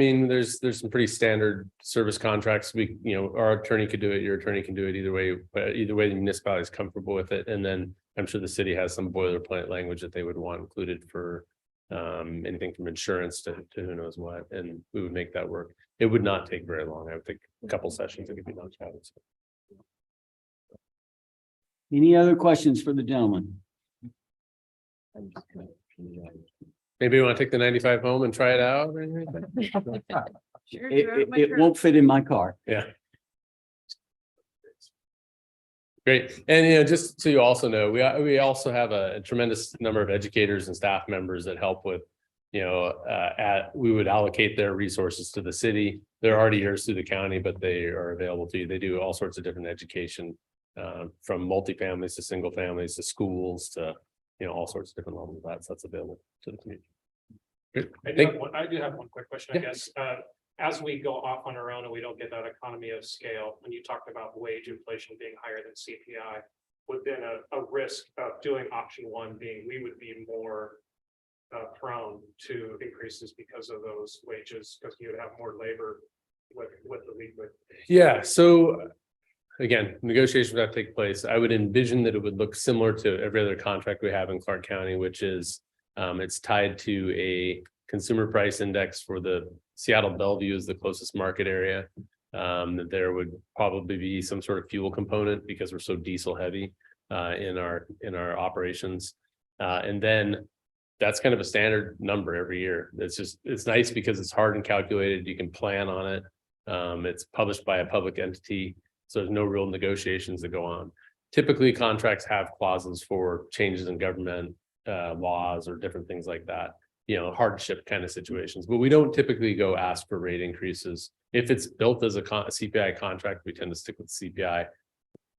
I mean, there's, there's some pretty standard service contracts. We, you know, our attorney could do it, your attorney can do it either way, but either way, the municipality is comfortable with it. And then I'm sure the city has some boilerplate language that they would want included for um, anything from insurance to, to who knows what, and we would make that work. It would not take very long. I would think a couple sessions, it could be knocked out. So, Any other questions for the gentleman? Maybe you want to take the ninety-five home and try it out or anything? Sure, It, sure, it, my it turn. won't fit in my car. Yeah. Great. And you know, just so you also know, we, we also have a tremendous number of educators and staff members that help with, you know, uh, at, we would allocate their resources to the city. They're already yours through the county, but they are available to you. They do all sorts of different education, uh, from multifamilies to single families to schools to, you know, all sorts of different levels of that. So that's available to the community. Good. I do Thank- have one, I do have one quick question, I Yeah. guess. Uh, as we go off on our own and we don't get that economy of scale, when you talked about wage inflation being higher than CPI, would then a, a risk of doing option one being, we would be more uh, prone to increases because of those wages, because you would have more labor with, with the lead, with Yeah, so uh, again, negotiations that take place, I would envision that it would look similar to every other contract we have in Clark County, which is um, it's tied to a consumer price index for the Seattle Bellevue is the closest market area. Um, that there would probably be some sort of fuel component because we're so diesel heavy uh, in our, in our operations. Uh, and then that's kind of a standard number every year. It's just, it's nice because it's hard and calculated. You can plan on it. Um, it's published by a public entity, so there's no real negotiations that go on. Typically, contracts have clauses for changes in government uh laws or different things like that. You know, hardship kind of situations, but we don't typically go ask for rate increases. If it's built as a con- a CPI contract, we tend to stick with CPI.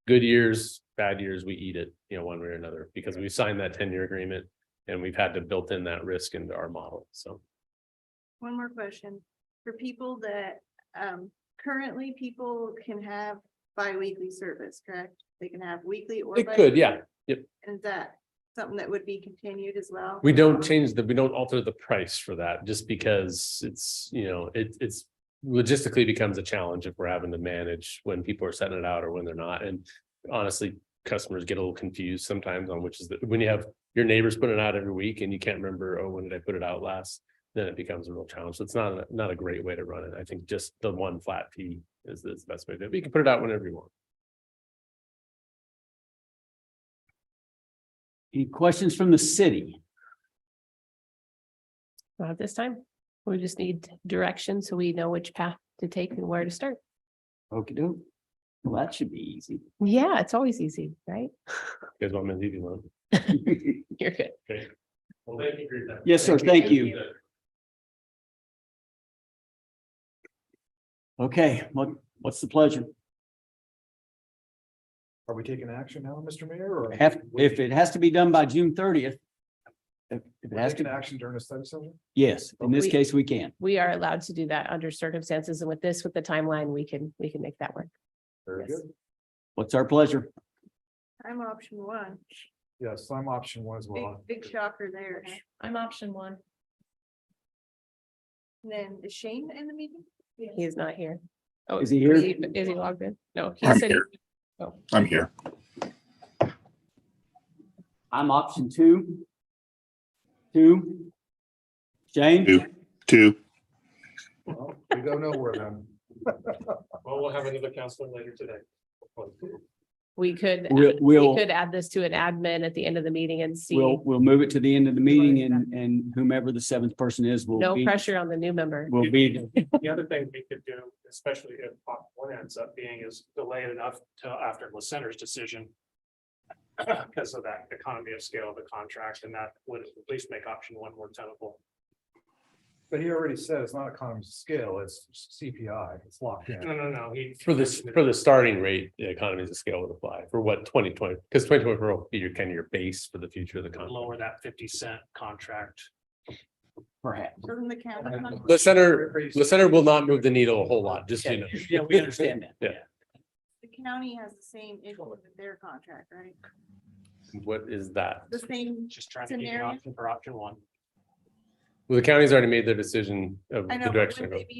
Good years, bad years, we eat it, you know, one way or another, because we signed that ten-year agreement and we've had to built in that risk into our model, so. One more question. For people that, um, currently people can have bi-weekly service, correct? They can have weekly or. It could, yeah, bi- And is that something that would be continued as well? We don't change the, we don't alter the price for that just because it's, you know, it, it's logistically becomes a challenge if we're having to manage when people are setting it out or when they're not. And honestly, customers get a little confused sometimes on which is the when you have your neighbors putting it out every week and you can't remember, oh, when did I put it out last? Then it becomes a real challenge. So it's not, a- not a great way to run it. I think just the one flat fee is is the best way to do it. You can put it out whenever you want. Any questions from the city? Not this time. We just need direction so we know which path to take and where to start. okey doke. Well, that should be easy. Yeah, it's always easy, right? You Guys, want me to leave you alone? You're good. Well, thank you for your time. Yes, sir. Thank you. Okay, what, what's the pleasure? Are we taking action now, Mr. Mayor, or? Have, if it has to be done by June thirtieth. If if it We're has taking to, action during a study session? yes, in this We- case, we can. We are allowed to do that under circumstances and with this, with the timeline, we can, we can make that work. Very Yes. good. What's our pleasure? I'm option one. Yes, I'm option one as Big, well. big shocker there. I'm option one. And then is Shane in the meeting? He is not here. Oh, Is he here? Is is he logged in? No. he I'm said he- here. I'm here. I'm option two. Two. Shane? Two. Two. Well, We go nowhere then. Well, we'll have another counselor later today. We could, We'll, we we'll, could add this to an admin at the end of the meeting and see. we'll, we'll move it to the end of the meeting and, and whomever the seventh person is will No be, pressure on the new member. will be, The other thing we could do, especially if Pop one ends up being is delayed enough till after the center's decision. Because of that economy of scale of the contract and that would at least make option one more tenable. But he already said it's not economies of scale, it's CPI, it's locked in. No, no, no, he. For this, for the starting rate, the economies of scale would apply for what twenty twenty, because twenty twenty four will be your kind of your base for the future of the economy. Lower that fifty cent contract. perhaps. Doesn't the county? The center, the center will not move the needle a whole lot, just, so you know, Yeah, we understand that. Yeah. The county has the same issue with their contract, right? what is that? The same Just trying to give you Scenario? option for option one. Well, the county's already made their decision of I the know, but direction. wouldn't to go. they be